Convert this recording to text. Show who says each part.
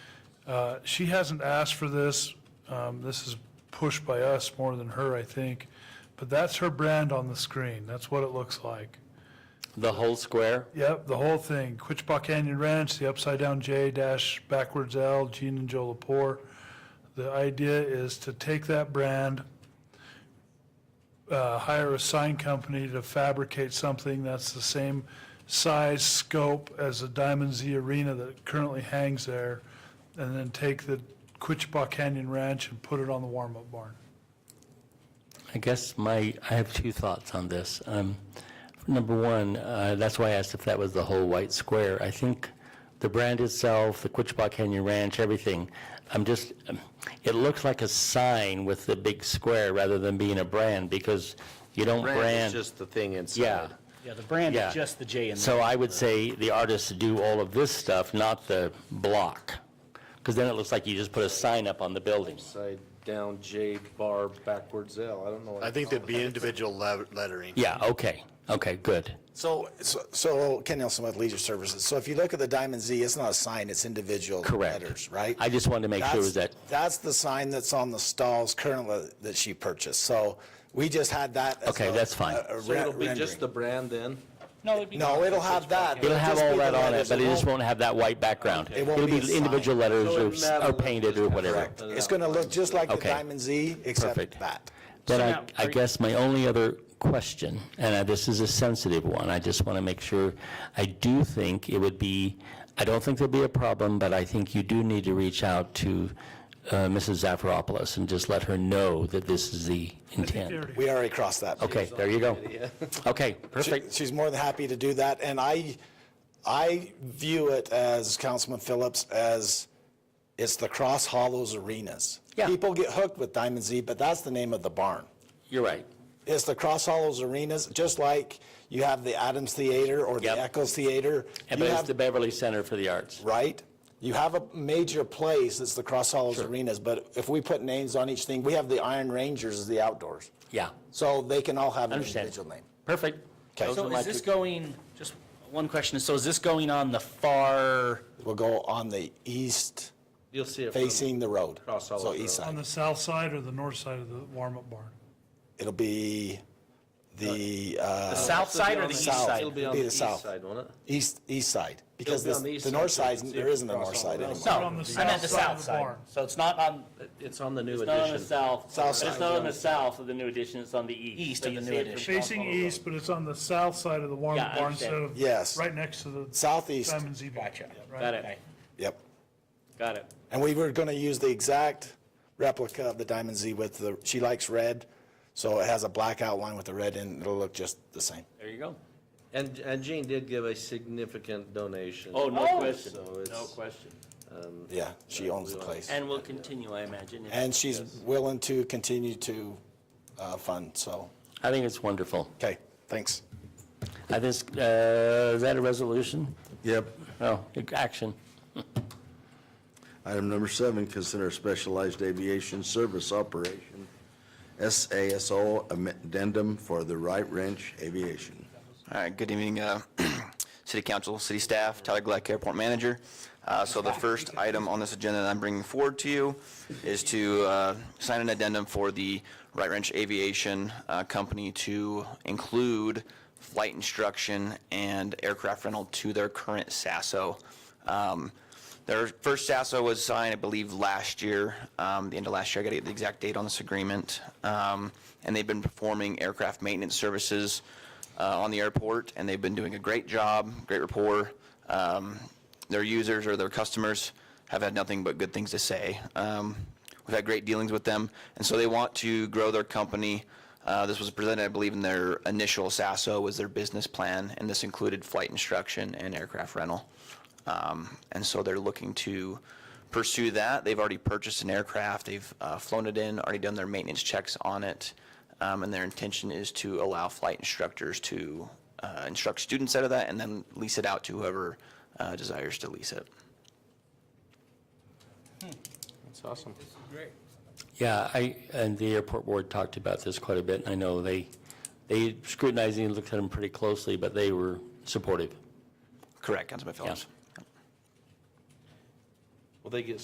Speaker 1: Uh, She hasn't asked for this. Um, This is pushed by us more than her, I think. But that's her brand on the screen. That's what it looks like.
Speaker 2: The whole square?
Speaker 1: Yep, the whole thing. Quichbaw Canyon Ranch, the upside down J dash backwards L, Gene and Joe Lepore. The idea is to take that brand, uh, hire a sign company to fabricate something that's the same size, scope as the Diamond Z Arena that currently hangs there, and then take the Quichbaw Canyon Ranch and put it on the warm-up barn.
Speaker 2: I guess my, I have two thoughts on this. Um, Number one, uh, that's why I asked if that was the whole white square. I think the brand itself, the Quichba Canyon Ranch, everything, I'm just, um, it looks like a sign with the big square rather than being a brand, because you don't
Speaker 3: Brand is
Speaker 2: brand.
Speaker 3: just the thing inside.
Speaker 2: Yeah.
Speaker 4: Yeah, the brand
Speaker 2: Yeah.
Speaker 4: is just the J in there.
Speaker 2: So I would say the artists do all of this stuff, not the block, because then it looks like you just put a sign up on the building.
Speaker 3: Side down J bar backwards L. I don't know. what
Speaker 5: I
Speaker 3: it's
Speaker 5: think there'd
Speaker 3: called.
Speaker 5: be individual le- lettering.
Speaker 2: Yeah, okay, okay, good.
Speaker 6: So, so- so Ken Nelson with Leisure Services. So if you look at the Diamond Z, it's not a sign, it's individual
Speaker 2: Correct.
Speaker 6: letters, right?
Speaker 2: I just wanted to make sure
Speaker 6: That's-
Speaker 2: that,
Speaker 6: That's the sign that's on the stalls currently that she purchased. So we just had that. as
Speaker 2: Okay,
Speaker 6: a-
Speaker 2: that's fine.
Speaker 6: a- a
Speaker 3: So it'll
Speaker 6: re-
Speaker 3: be
Speaker 6: rendering.
Speaker 3: just the brand then?
Speaker 4: No, it'd be.
Speaker 6: No, it'll have that.
Speaker 2: it'll have
Speaker 6: just
Speaker 2: all
Speaker 6: be the
Speaker 2: that on it,
Speaker 6: letters.
Speaker 2: but it just won't have that white background.
Speaker 6: It won't be a sign.
Speaker 2: individual letters
Speaker 3: So
Speaker 2: or
Speaker 3: it
Speaker 2: s-
Speaker 3: matter
Speaker 2: or
Speaker 3: what
Speaker 2: painted
Speaker 3: just
Speaker 2: or
Speaker 3: comes
Speaker 2: whatever.
Speaker 3: out.
Speaker 6: It's going to look just like the
Speaker 2: Okay.
Speaker 6: Diamond Z, except
Speaker 2: Perfect.
Speaker 6: that.
Speaker 2: Then
Speaker 4: now,
Speaker 2: I, I
Speaker 4: are you-
Speaker 2: guess my only other question, and I- this is a sensitive one, I just want to make sure, I do think it would be, I don't think there'll be a problem, but I think you do need to reach out to uh, Mrs. Zafiropoulos and just let her know that this is the intent.
Speaker 6: We already crossed that.
Speaker 2: Okay, there you go. Okay,
Speaker 6: She-
Speaker 2: perfect.
Speaker 6: She's more than happy to do that, and I, I view it as Councilman Phillips, as it's the Cross Hollows Arenas.
Speaker 2: Yeah.
Speaker 6: People get hooked with Diamond Z, but that's the name of the barn.
Speaker 2: You're right.
Speaker 6: It's the Cross Hollows Arenas, just like you have the Adams Theater or the
Speaker 2: Yep.
Speaker 6: Eccles Theater.
Speaker 2: And
Speaker 6: You
Speaker 2: but it's
Speaker 6: have-
Speaker 2: the Beverly Center for the Arts.
Speaker 6: Right? You have a major place, it's the Cross Hollows Arenas, but if we put names on each thing, we have the Iron Rangers as the outdoors.
Speaker 2: Yeah,
Speaker 6: So they can all have an
Speaker 2: Understand.
Speaker 6: individual name.
Speaker 2: perfect. Those are
Speaker 4: So
Speaker 2: my
Speaker 4: is this
Speaker 2: two-
Speaker 4: going, just one question, so is this going on the far,
Speaker 6: We'll go on the east.
Speaker 3: You'll see it. from-
Speaker 6: facing the road.
Speaker 3: Cross all
Speaker 6: So
Speaker 3: of the
Speaker 6: east
Speaker 3: road.
Speaker 1: On
Speaker 6: side.
Speaker 1: the south side or the north side of the warm-up barn?
Speaker 6: It'll be the, uh,
Speaker 4: the south side or the east
Speaker 6: south.
Speaker 4: side?
Speaker 3: It'll be on
Speaker 6: Be
Speaker 3: the
Speaker 6: the
Speaker 3: east
Speaker 6: south.
Speaker 3: side, won't it?
Speaker 6: east, east side. Because
Speaker 3: be
Speaker 6: the,
Speaker 3: on the east
Speaker 6: the
Speaker 3: side,
Speaker 6: north
Speaker 3: so you
Speaker 6: side,
Speaker 3: can see
Speaker 6: there
Speaker 3: it
Speaker 6: isn't a
Speaker 3: across
Speaker 6: north
Speaker 3: all
Speaker 6: side
Speaker 3: the road.
Speaker 6: anymore.
Speaker 4: No,
Speaker 1: We're on the
Speaker 4: I
Speaker 1: south
Speaker 4: meant the
Speaker 1: side of
Speaker 4: south
Speaker 1: the
Speaker 4: side.
Speaker 1: barn.
Speaker 4: So it's not on
Speaker 3: It's on the new
Speaker 2: It's not on the
Speaker 3: edition.
Speaker 2: south.
Speaker 6: South
Speaker 2: It's
Speaker 6: side.
Speaker 2: not on the south of the new edition, it's on the east.
Speaker 4: East
Speaker 2: So
Speaker 4: of
Speaker 2: you
Speaker 4: the
Speaker 2: see
Speaker 4: new
Speaker 2: it from
Speaker 4: edition.
Speaker 1: Facing east, but it's on the south side of the warm-up
Speaker 2: Yeah, I
Speaker 1: barn instead
Speaker 2: understand.
Speaker 1: of.
Speaker 6: Yes.
Speaker 1: Right next to the.
Speaker 6: Southeast,
Speaker 1: Simon Zebul.
Speaker 4: Gotcha.
Speaker 1: Right.
Speaker 2: Got it,
Speaker 4: Okay.
Speaker 6: yep.
Speaker 2: got it.
Speaker 6: And we were gonna use the exact replica of the Diamond Z with the, she likes red, so it has a black outline with the red and it'll look just the same.
Speaker 2: There you go.
Speaker 3: And, and Gene did give a significant donation.
Speaker 2: Oh, no question,
Speaker 3: So
Speaker 2: no
Speaker 3: it's,
Speaker 2: question.
Speaker 6: Yeah, she owns the place.
Speaker 2: And we'll continue, I imagine. if-
Speaker 6: And she's willing to continue to, uh, fund, so,
Speaker 2: I think it's wonderful.
Speaker 6: okay, thanks.
Speaker 2: I think, uh, is that a resolution?
Speaker 7: Yep.
Speaker 2: Oh, action.
Speaker 7: Item number seven, consider specialized aviation service operation, SASO addendum for the Right Ranch Aviation.
Speaker 8: All right, good evening, uh, City Council, City Staff, Tyler Gleck, Airport Manager. Uh, So the first item on this agenda that I'm bringing forward to you is to uh, sign an addendum for the Right Ranch Aviation uh, Company to include flight instruction and aircraft rental to their current SASO. Um, Their first SASO was signed, I believe, last year, um, the end of last year. I got to get the exact date on this agreement. Um, And they've been performing aircraft maintenance services uh, on the airport, and they've been doing a great job, great rapport. Um, Their users or their customers have had nothing but good things to say. Um, We've had great dealings with them, and so they want to grow their company. Uh, This was presented, I believe, in their initial SASO was their business plan, and this included flight instruction and aircraft rental. Um, And so they're looking to pursue that. They've already purchased an aircraft, they've uh, flown it in, already done their maintenance checks on it, um, and their intention is to allow flight instructors to uh, instruct students out of that and then lease it out to whoever uh, desires to lease it.
Speaker 3: it's awesome.
Speaker 2: Yeah, I, and the airport board talked about this quite a bit, and I know they, they scrutinized and looked at them pretty closely, but they were supportive.
Speaker 8: Correct, Councilman Phillips?
Speaker 2: Yeah.
Speaker 3: Will they get